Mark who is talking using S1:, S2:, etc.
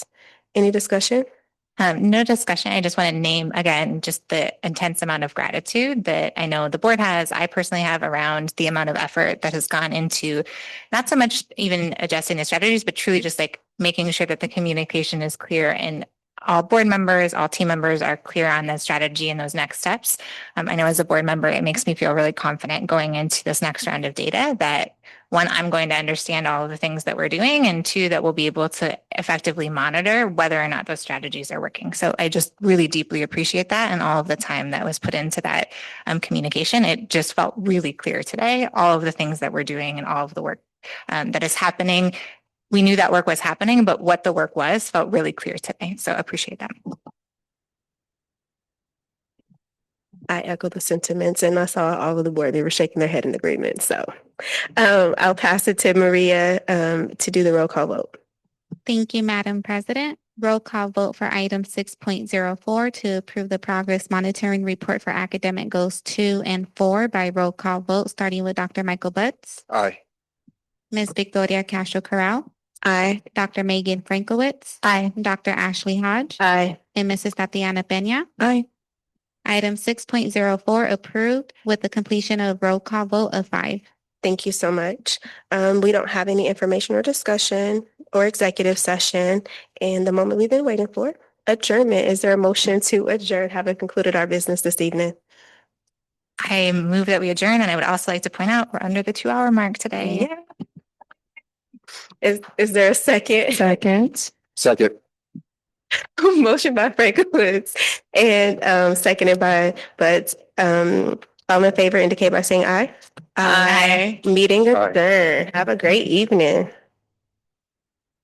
S1: Any discussion?
S2: Um, no discussion. I just want to name again just the intense amount of gratitude that I know the board has. I personally have around the amount of effort that has gone into not so much even adjusting the strategies, but truly just like making sure that the communication is clear and all board members, all team members are clear on the strategy and those next steps. Um, I know as a board member, it makes me feel really confident going into this next round of data that one, I'm going to understand all of the things that we're doing, and two, that we'll be able to effectively monitor whether or not those strategies are working. So I just really deeply appreciate that and all of the time that was put into that um, communication. It just felt really clear today, all of the things that we're doing and all of the work um, that is happening. We knew that work was happening, but what the work was felt really clear today. So I appreciate that.
S1: I echo the sentiments and I saw all of the board, they were shaking their head in agreement. So um, I'll pass it to Maria um, to do the roll call vote.
S3: Thank you, Madam President. Roll call vote for item six point zero four to approve the progress monitoring report for academic goals two and four by roll call vote, starting with Dr. Michael Butts,
S4: Aye.
S3: Ms. Victoria Castro Corral,
S1: Aye.
S3: Dr. Megan Frankowitz,
S2: Aye.
S3: Dr. Ashley Hodge,
S1: Aye.
S3: and Mrs. Tatiana Pena.
S1: Aye.
S3: Item six point zero four approved with the completion of roll call vote of five.
S1: Thank you so much. Um, we don't have any information or discussion or executive session. And the moment we've been waiting for, adjournment. Is there a motion to adjourn, having concluded our business this evening?
S2: I move that we adjourn, and I would also like to point out we're under the two hour mark today.
S1: Is, is there a second?
S5: Second.
S4: Second.
S1: Motion by Franklin and, um, seconded by, but, um, all in favor indicate by saying aye.
S2: Aye.
S1: Meeting
S4: Aye.
S1: adjourned. Have a great evening.